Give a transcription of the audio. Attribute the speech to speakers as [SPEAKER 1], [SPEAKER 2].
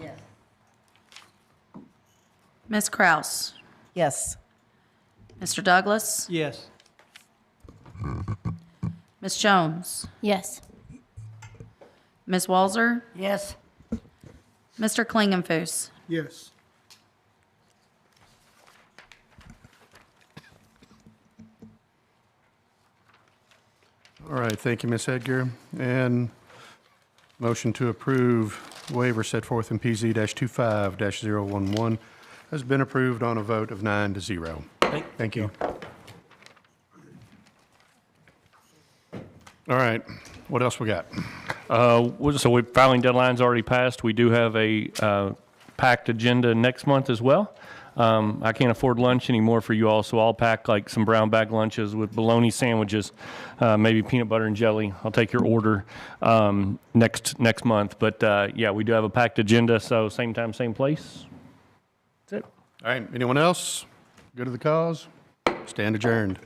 [SPEAKER 1] Yes. Ms. Kraus?
[SPEAKER 2] Yes.
[SPEAKER 1] Mr. Douglas?
[SPEAKER 3] Yes.
[SPEAKER 1] Ms. Jones?
[SPEAKER 4] Yes.
[SPEAKER 1] Ms. Walzer?
[SPEAKER 2] Yes.
[SPEAKER 1] Mr. Klingenfuss?
[SPEAKER 3] Yes.
[SPEAKER 5] All right, thank you, Ms. Edgar. And motion to approve waiver set forth in PZ-25-011 has been approved on a vote of nine to zero. Thank you. All right, what else we got?
[SPEAKER 6] Uh, well, So we, filing deadline's already passed. We do have a uh, packed agenda next month as well. Um, I can't afford lunch anymore for you all, so I'll pack like some brown bag lunches with bologna sandwiches, uh, maybe peanut butter and jelly. I'll take your order um, next, next month. But uh, yeah, we do have a packed agenda, so same time, same place. That's it.
[SPEAKER 5] All right, anyone else? Good to the cause? Stand adjourned.